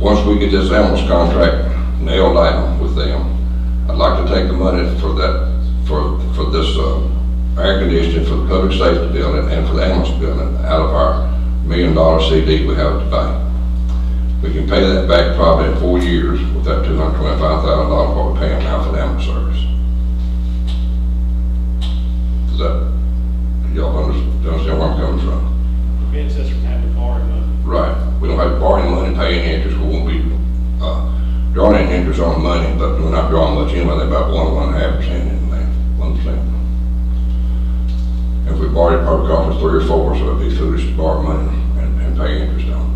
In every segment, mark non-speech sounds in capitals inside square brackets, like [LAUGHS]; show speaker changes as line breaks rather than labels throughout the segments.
once we get this ambulance contract nailed down with them, I'd like to take the money for that, for, for this, uh, air conditioning for the public safety building and for the ambulance building out of our million dollar CD we have at the bank. We can pay that back probably in four years with that two hundred twenty-five thousand dollars what we're paying now for the ambulance service. Does that, y'all under- understand where I'm coming from?
prevents us from having to borrow money.
Right, we don't have to borrow any money, pay any interest, we won't be, uh, drawing any interest on money, but we're not drawing much anyway, they're about one, one and a half percent in there, one percent. If we borrowed, it, probably cost us three or four, so it'd be foolish to borrow money and, and pay interest on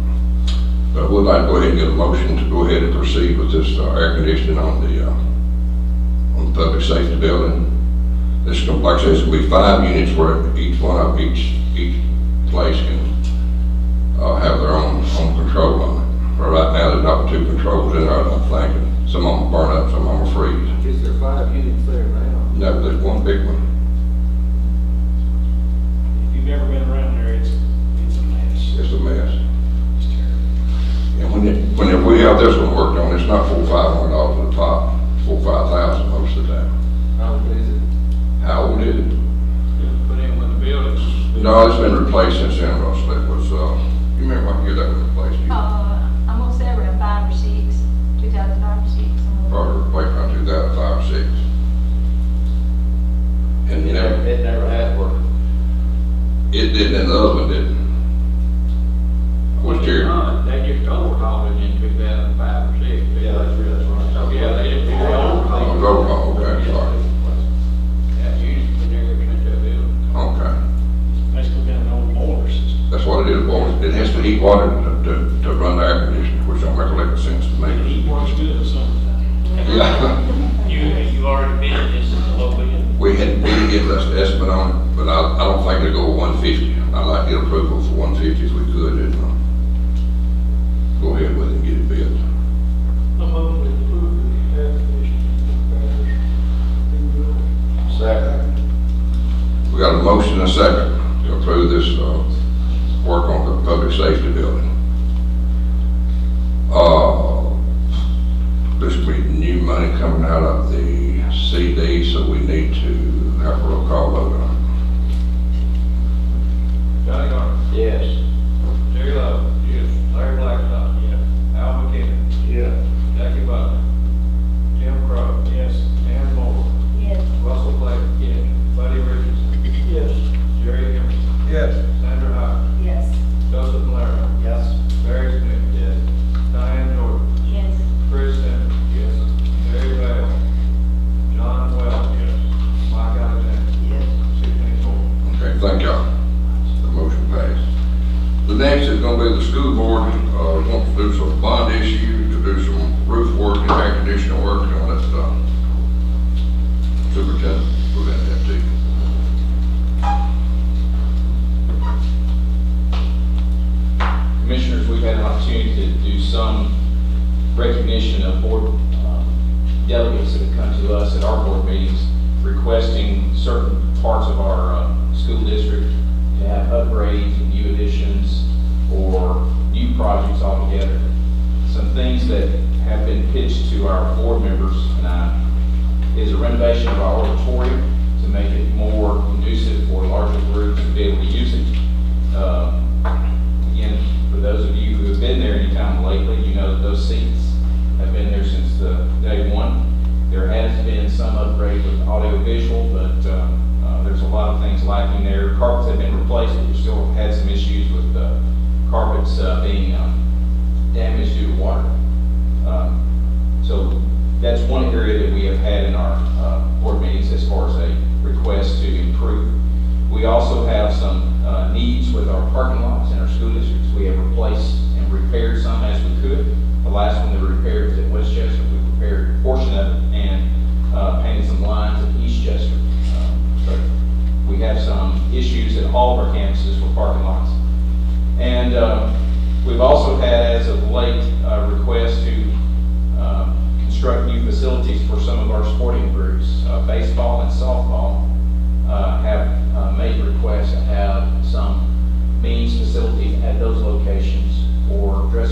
it. But I would like to go ahead and get a motion to go ahead and proceed with this, uh, air conditioning on the, uh, on the public safety building. This, is gonna- like I said, it's gonna be five units where each one of each, each place can uh, have their own, own control on it. But right now, there's not two controls in there, I'm thinking. Some of them burn up, some of them freeze.
Is there five units there now?
No, there's one big one.
If you've ever been around there, it's, it's a mess.
It's a mess.
It's terrible.
And when it, when if we have this one worked on, it's not four, five hundred dollars at the top, four, five thousand most of the time.
How old is it?
How old is it?
Put in when the buildings.
No, it's been replaced since then, Russell. It was, uh, you remember what year that was replaced? You
Uh, I'm gonna say around five or six, two thousand five or six. somewhere.
Probably replaced around two thousand five or six. And you never,
It never has worked.
it didn't, and the other one didn't. Was Jerry.
They just overhauled it in two thousand five or six.
Yeah, that's real, that's right.
So, yeah, they didn't do it
Oh,
overhaul.
roll call, okay, sorry.
That unit's been there since they built.
Okay,
Basically been an old boiler system.
that's what it is, boys. It has to heat water to, to, to run the air conditioner, which don't make a lick of sense to
It
me.
heat works good in summertime.
Yeah, [LAUGHS]
You, you already bid this is a low bid.
we had, we did get less estimate on it, but I, I don't think it'll go one fifty. I'd like to get approval for one fifty if we could, and, uh, go ahead with it and get it built.
I'm hoping to improve the air conditioning.
Second.
We got a motion and a second to approve this, uh, work on the public safety building. Uh, this will be new money coming out of the CD, so we need to have a roll call vote on
Johnny Garner.
Yes.
Terry Love. Yes. Larry Blackstock. Yes. Al McKinnon.
Yeah.
Jackie Butler. Jim Crow.
Yes.
Dan Moore.
Yes,
Russell Blake. Yes. Buddy Richardson.
Yes.
Jerry Emerson.
Yes.
Sandra Hyer.
yes,
Joseph Malaro.
Yes.
Barry Smith. Yes. Diane Jordan.
yes,
Chris Simmons. Yes. Terry Vale. John Wells. Yes. Mike Alexander. Yes. Sydney Moore.
it. Okay, thank y'all. The motion passed. The next is gonna be the school board, uh, wants to do some bond issue, to do some roof work and air conditioning work and all that stuff. Superintendent, we're gonna have to.
commissioners, we've had an opportunity to do some recognition of board um, delegates that have come to us at our board meetings requesting certain parts of our uh, school district to have upgrades, and new additions, or new projects altogether. Some things that have been pitched to our board members tonight is a renovation of our auditorium to make it more conducive for larger groups to be able to use it. Um, Again, for those of you who have been there anytime lately, you know that those seats have been there since the day one. There has been some upgrade with audio visual, but um, uh, there's a lot of things lacking there. Carpets have been replaced, but we still had some issues with uh, carpets uh, being um, damaged due to water. Um, So that's one area that we have had in our uh, board meetings as far as a request to improve. We also have some uh, needs with our parking lots in our school districts. We have replaced and repaired some as we could. The last one that we repaired was at Westchester. We repaired a portion of it and uh, painted some lines at Eastchester. Um, but We have some issues at all of our campuses for parking lots. And uh, we've also had, as of late, a request to um, construct new facilities for some of our sporting groups. Uh, Baseball and softball uh, have uh, made requests to have some means facilities at those locations for dressing